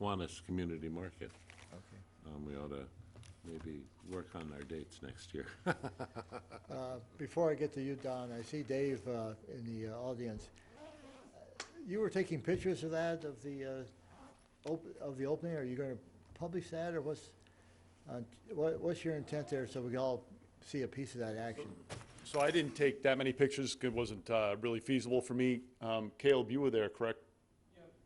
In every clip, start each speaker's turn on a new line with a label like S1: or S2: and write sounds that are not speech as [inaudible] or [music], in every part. S1: Kiwanis Community Market.
S2: Okay.
S1: Um, We ought to maybe work on our dates next year. [laughs]
S3: Uh, Before I get to you, Don, I see Dave uh, in the uh, audience. You were taking pictures of that, of the, uh, op- of the opening, are you going to publish that, or what's, uh, what- what's your intent there, so we can all see a piece of that action?
S4: So I didn't take that many pictures, 'cause it wasn't uh, really feasible for me. Um, Caleb, you were there, correct?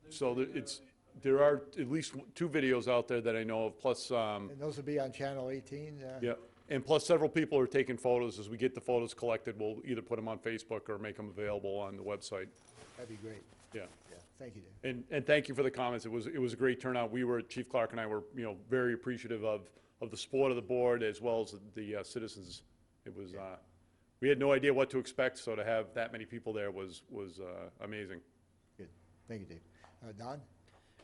S4: So there- it's, there are at least w- two videos out there that I know of, plus, um,
S3: And those will be on Channel 18? uh,
S4: yeah, and plus several people are taking photos. As we get the photos collected, we'll either put them on Facebook or make them available on the website.
S3: That'd be great,
S4: Yeah.
S3: yeah, thank you, Dave.
S4: And, and thank you for the comments. It was, it was a great turnout. We were, Chief Clark and I were, you know, very appreciative of, of the support of the board as well as the uh, citizens. It was, uh, we had no idea what to expect, so to have that many people there was, was uh, amazing.
S3: Good, thank you, Dave. Uh, Don?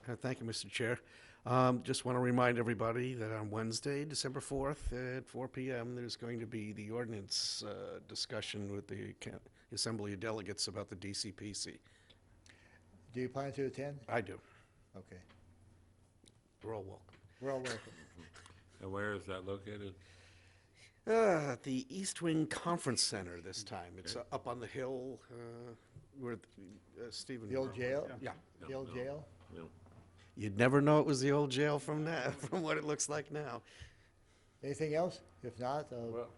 S5: Uh, Thank you, Mr. Chair. Um, Just want to remind everybody that on Wednesday, December 4th, at 4 PM, there's going to be the ordinance uh, discussion with the ca- Assembly of Delegates about the DCPC.
S3: Do you plan to attend?
S5: I do.
S3: Okay,
S5: We're all welcome.
S3: we're all welcome.
S1: And where is that located?
S5: Uh, at The East Wing Conference Center this time. It's uh, up on the hill uh, where th- uh, Stephen.
S3: The old jail?
S5: Yeah.
S3: The old jail?
S1: No.
S5: You'd never know it was the old jail from now, [laughs] from what it looks like now.
S3: Anything else? If not, uh,
S1: Well,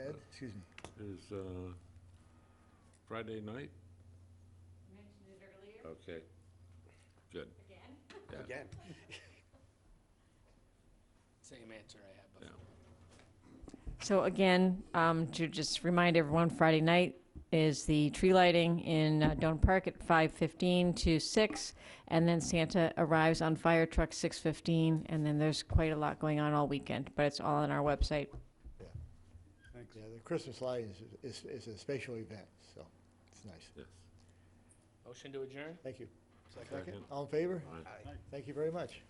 S3: Ed, excuse me.
S1: is uh, Friday night?
S6: mentioned it earlier
S1: Okay. Good.
S6: again.
S1: Yeah.
S5: Again.
S7: Same answer I had
S1: Yeah.
S7: before.
S6: So again, um, to just remind everyone, Friday night is the tree lighting in uh, Don Park at five fifteen to six, and then Santa arrives on fire truck six fifteen, and then there's quite a lot going on all weekend, but it's all on our website.
S3: Yeah, the Christmas lighting is, is, is a special event, so it's nice.
S1: Yes.
S7: Motion to adjourn?
S3: Thank you.
S1: Second.
S3: All in favor?
S1: Aye.
S3: Thank you very much.